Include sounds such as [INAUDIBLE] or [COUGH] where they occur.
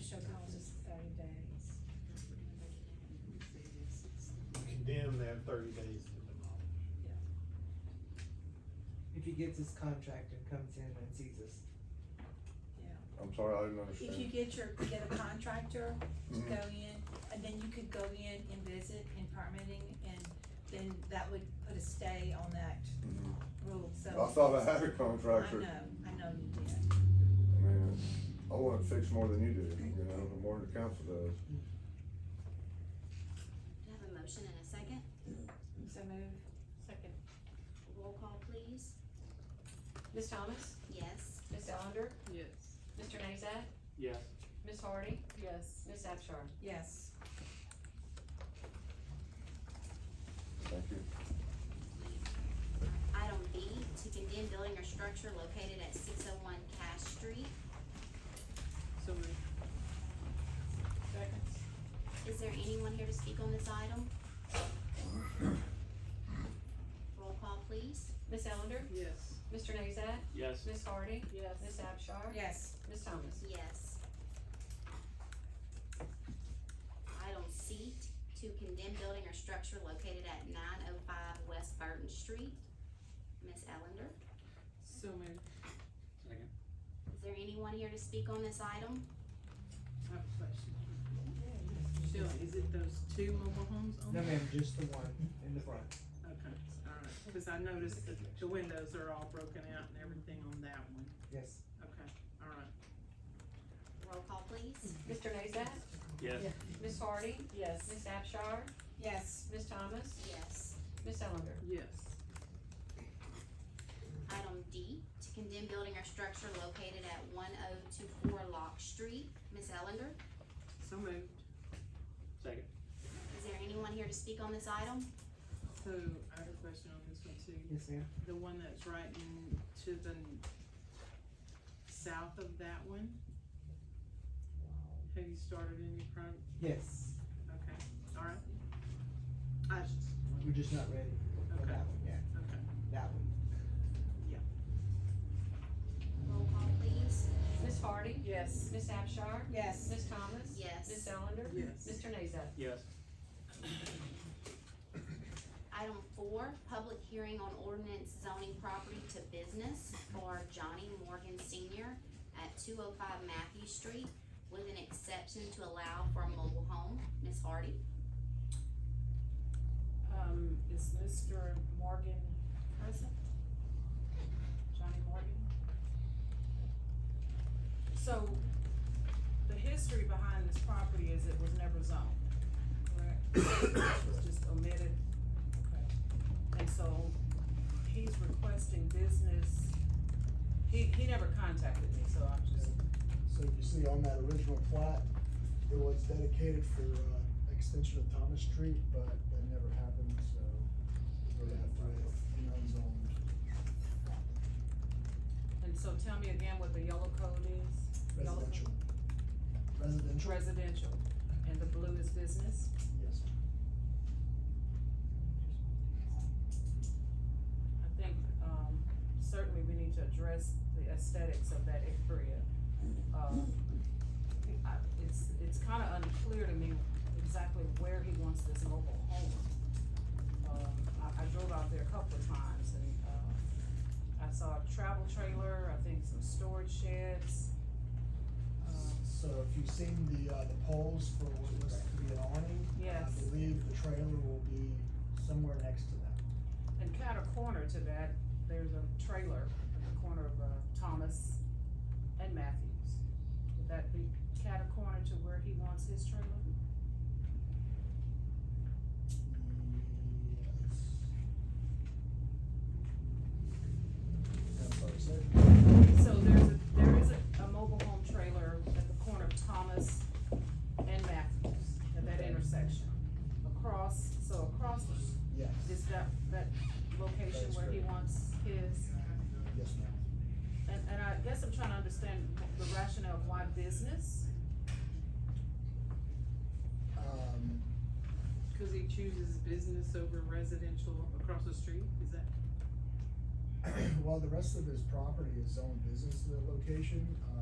shall cause us thirty days. condemn that thirty days to demolish. If he gets his contract and comes in and sees us. I'm sorry, I didn't If you understand. get your, get a contractor to Mhm. go in, and then you could go in and visit in permitting, and then that would put a stay on that Mhm. rule, so. I thought I had a I contractor. know, I know you did. I mean, I want it fixed more than you do, you know, the more the council does. I have a motion and a second. So move. Second. Roll call, please. Ms. Thomas? Yes. Ms. Ellender? Yes. Mr. Nazat? Yes. Ms. Hardy? Yes. Ms. Abchar? Yes, Thank you. Item B, to condemn building or structure located at six oh one Cash Street. So moved. Second. Is there anyone here to speak on this item? Roll call, please. Ms. Ellender? Yes. Mr. Nazat? Yes. Ms. Hardy? Yes. Ms. Abchar? Oh, yes, Ms. Thomas? Yes. Item C, to condemn building or structure located at nine oh five West Burton Street. Ms. Ellender, So moved. Second. is there anyone here to speak on this item? I have a question. Sheila, is it those two mobile homes on? No there? ma'am, just the one in the front. Okay, alright, cause I noticed that the windows are all broken out and everything on that one. Yes. Okay, alright. Roll call, please. Mr. Nazat? Yes. Ms. Hardy? Yes. Ms. Abchar? yes, Ms. Thomas? Yes. Ms. Ellender? Yes. Item D, to condemn building or structure located at one oh two four Lock Street. Ms. Ellender, So moved. Second. is there anyone here to speak on this item? So I have a question on this one too. Yes, ma'am. The one that's right in to the n- south of that one? Have you started any pro, Yes. okay, alright. I just, We're just not ready for Okay. that one yet. okay. That one. Roll call, please. Ms. Hardy? Yes. Ms. Abchar? yes. Ms. Thomas? Yes. Ms. Ellender? Yes. Mr. Nazat? Yes. Item four, public hearing on ordinance zoning property to business for Johnny Morgan Senior at two oh five Matthew Street with an exception to allow for a mobile home. Ms. Hardy, Um, is Mr. Morgan present? Johnny Morgan? So, the history behind this property is it was never zoned, correct? It was just omitted. Okay. And so, he's requesting business, he, he never contacted me, so I'm just, So you see on that original plat, it was dedicated for, uh, extension of Thomas Street, but that never happened, so we're gonna have to wait unzoned. and so tell me again what the yellow code is? Yellow code? Residential. Residential, Residential, and the blue is business? yes. I think, um, certainly we need to address the aesthetics of that area. Um, I- It's, it's kinda unclear to me exactly where he wants this mobile home. Um, I, I drove out there a couple of times and, uh, I saw a travel trailer, I think some storage sheds. Um, So if you've seen the, uh, the poles for what looks to be an awning, I Yes. believe the trailer will be somewhere next to that. And kind of corner to that, there's a trailer at the corner of, uh, Thomas and Matthews. Would that be kind of corner to where he wants his trailer? Yes. That's what I said. So there's a, there is a, a mobile home trailer at the corner of Thomas and Matthews, at that Okay. intersection. Across, so across the, Yes, is that, that location That's where he correct. wants his? yes, ma'am. And, and I guess I'm trying to understand the rationale of why business, Um, [CLEARS THROAT] Cause he chooses business over residential across the street, is that? Well, the rest of his property is zoned business to the location,